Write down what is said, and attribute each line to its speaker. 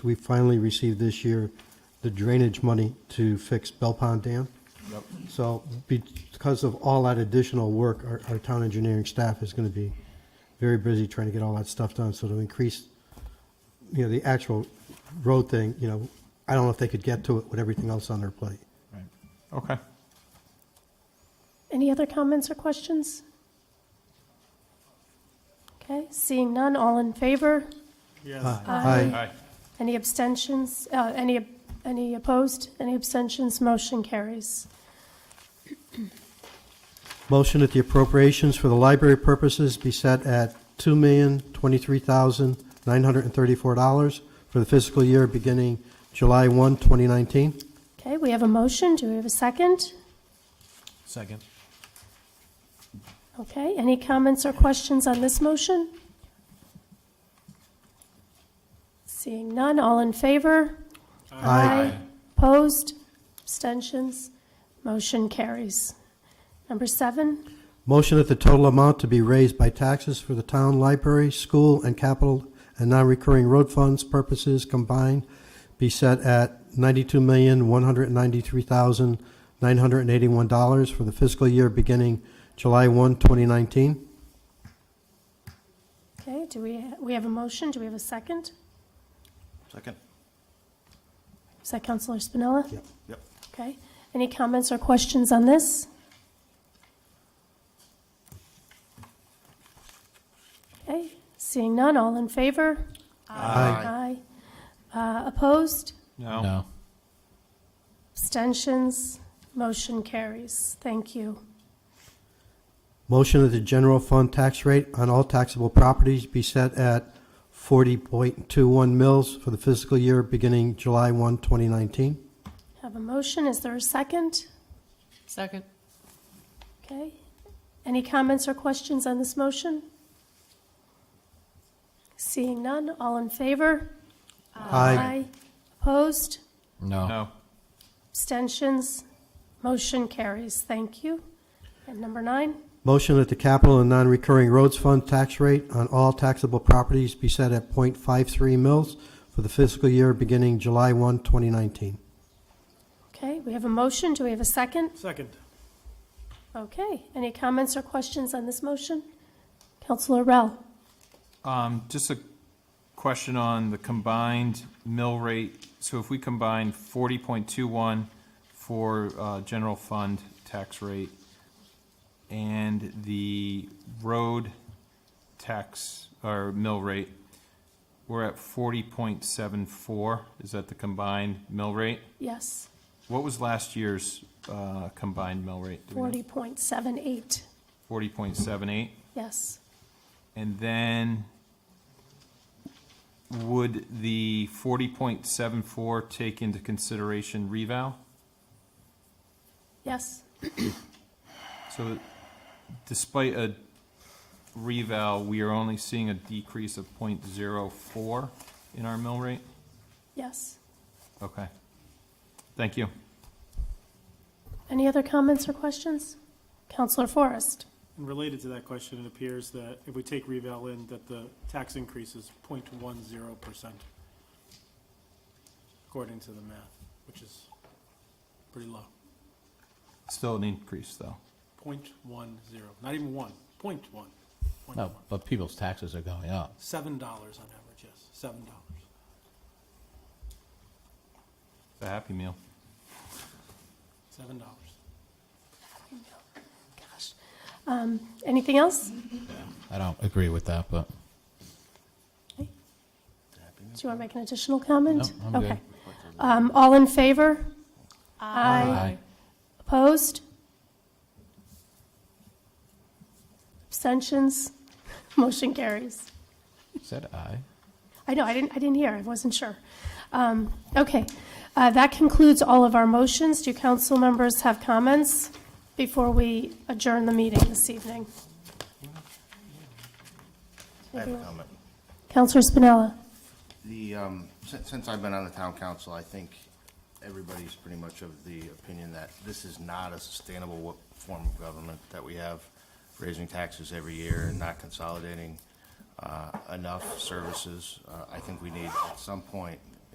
Speaker 1: we finally received this year the drainage money to fix Bell Pond Dam.
Speaker 2: Yep.
Speaker 1: So because of all that additional work, our, our town engineering staff is going to be very busy trying to get all that stuff done. So to increase, you know, the actual road thing, you know, I don't know if they could get to it with everything else on their plate.
Speaker 2: Right. Okay.
Speaker 3: Any other comments or questions? Okay, seeing none, all in favor?
Speaker 1: Aye.
Speaker 2: Aye.
Speaker 3: Any abstentions? Uh, Any, any opposed? Any abstentions? Motion carries.
Speaker 1: Motion that the appropriations for the library purposes be set at two million twenty-three thousand nine hundred and thirty-four dollars for the fiscal year beginning July 1, 2019.
Speaker 3: Okay, we have a motion. Do we have a second?
Speaker 4: Second.
Speaker 3: Okay, any comments or questions on this motion? Seeing none, all in favor?
Speaker 1: Aye.
Speaker 3: Opposed? Abstentions? Motion carries. Number seven,
Speaker 1: Motion that the total amount to be raised by taxes for the town library, school, and capital and non-recurring road funds purposes combined be set at ninety-two million one hundred and ninety-three thousand nine hundred and eighty-one dollars for the fiscal year beginning July 1, 2019.
Speaker 3: okay, do we, we have a motion, do we have a second?
Speaker 4: Second.
Speaker 3: Is that Counselor Spinella?
Speaker 1: Yep.
Speaker 4: Yep.
Speaker 3: Okay, any comments or questions on this? Okay, seeing none, all in favor? Aye. Uh, Opposed?
Speaker 2: No.
Speaker 3: Abstentions? Motion carries. Thank you.
Speaker 1: Motion that the general fund tax rate on all taxable properties be set at 40.21 mils for the fiscal year beginning July 1, 2019.
Speaker 3: Have a motion, is there a second?
Speaker 5: Second.
Speaker 3: Okay. Any comments or questions on this motion? Seeing none, all in favor?
Speaker 1: Aye.
Speaker 3: Opposed?
Speaker 4: No.
Speaker 2: No.
Speaker 3: Abstentions? Motion carries. Thank you. And number nine,
Speaker 1: Motion that the capital and non-recurring roads fund tax rate on all taxable properties be set at .53 mils for the fiscal year beginning July 1, 2019.
Speaker 3: okay, we have a motion, do we have a second?
Speaker 4: Second.
Speaker 3: Okay, any comments or questions on this motion? Counselor Rel?
Speaker 2: Um, just a question on the combined mill rate. So if we combine forty point two one for, uh, general fund tax rate and the road tax, or mill rate, we're at forty point seven four. Is that the combined mill rate?
Speaker 3: Yes,
Speaker 2: What was last year's, uh, combined mill rate?
Speaker 3: forty point seven eight,
Speaker 2: Forty point seven eight?
Speaker 3: yes.
Speaker 2: And then would the forty point seven four take into consideration revow?
Speaker 3: Yes,
Speaker 2: So despite a revow, we are only seeing a decrease of 0.04 in our mill rate?
Speaker 3: yes.
Speaker 2: Okay. Thank you.
Speaker 3: Any other comments or questions? Counselor Forrest?
Speaker 6: And Related to that question, it appears that if we take reval in, that the tax increase is 0.10 percent, according to the math, which is pretty low.
Speaker 2: Still an increase, though.
Speaker 6: 0.10, not even one, point one, point
Speaker 4: No,
Speaker 6: one.
Speaker 4: but people's taxes are going up.
Speaker 6: Seven dollars on average, yes, seven dollars.
Speaker 2: It's a happy meal.
Speaker 6: Seven dollars.
Speaker 3: Gosh. Um, Anything else?
Speaker 4: I don't agree with that, but
Speaker 3: Do you want to make an additional comment?
Speaker 4: No, I'm good.
Speaker 3: Okay. Um, All in favor?
Speaker 4: Aye.
Speaker 3: Opposed? Abstentions? Motion carries.
Speaker 4: said aye.
Speaker 3: I know, I didn't, I didn't hear, I wasn't sure. Um, Okay, Uh, that concludes all of our motions. Do council members have comments before we adjourn the meeting this evening?
Speaker 7: I have a comment.
Speaker 3: Counselor Spinella?
Speaker 7: The, um, since, since I've been on the town council, I think everybody's pretty much of the opinion that this is not a sustainable wo- form of government that we have, raising taxes every year and not consolidating, uh, enough services. Uh, I think we need at some point